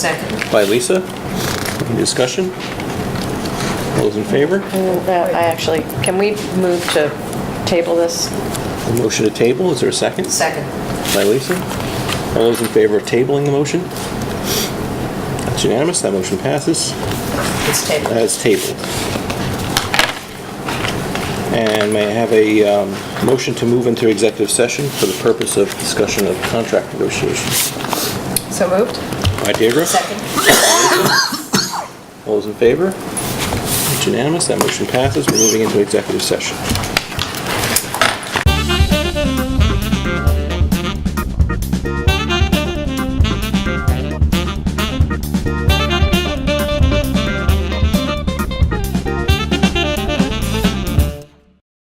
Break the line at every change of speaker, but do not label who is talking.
Second.
by Lisa. Any discussion? All those in favor?
Uh, I actually, can we move to table this?
A motion to table, is there a second?
Second.
By Lisa. All those in favor of tabling the motion? That's unanimous, that motion passes.
It's tabled.
That is tabled. And may I have a um, motion to move into executive session for the purpose of discussion of contract negotiations?
So moved?
By Deirdre?
Second.
All those in favor? It's unanimous, that motion passes, we're moving into executive session.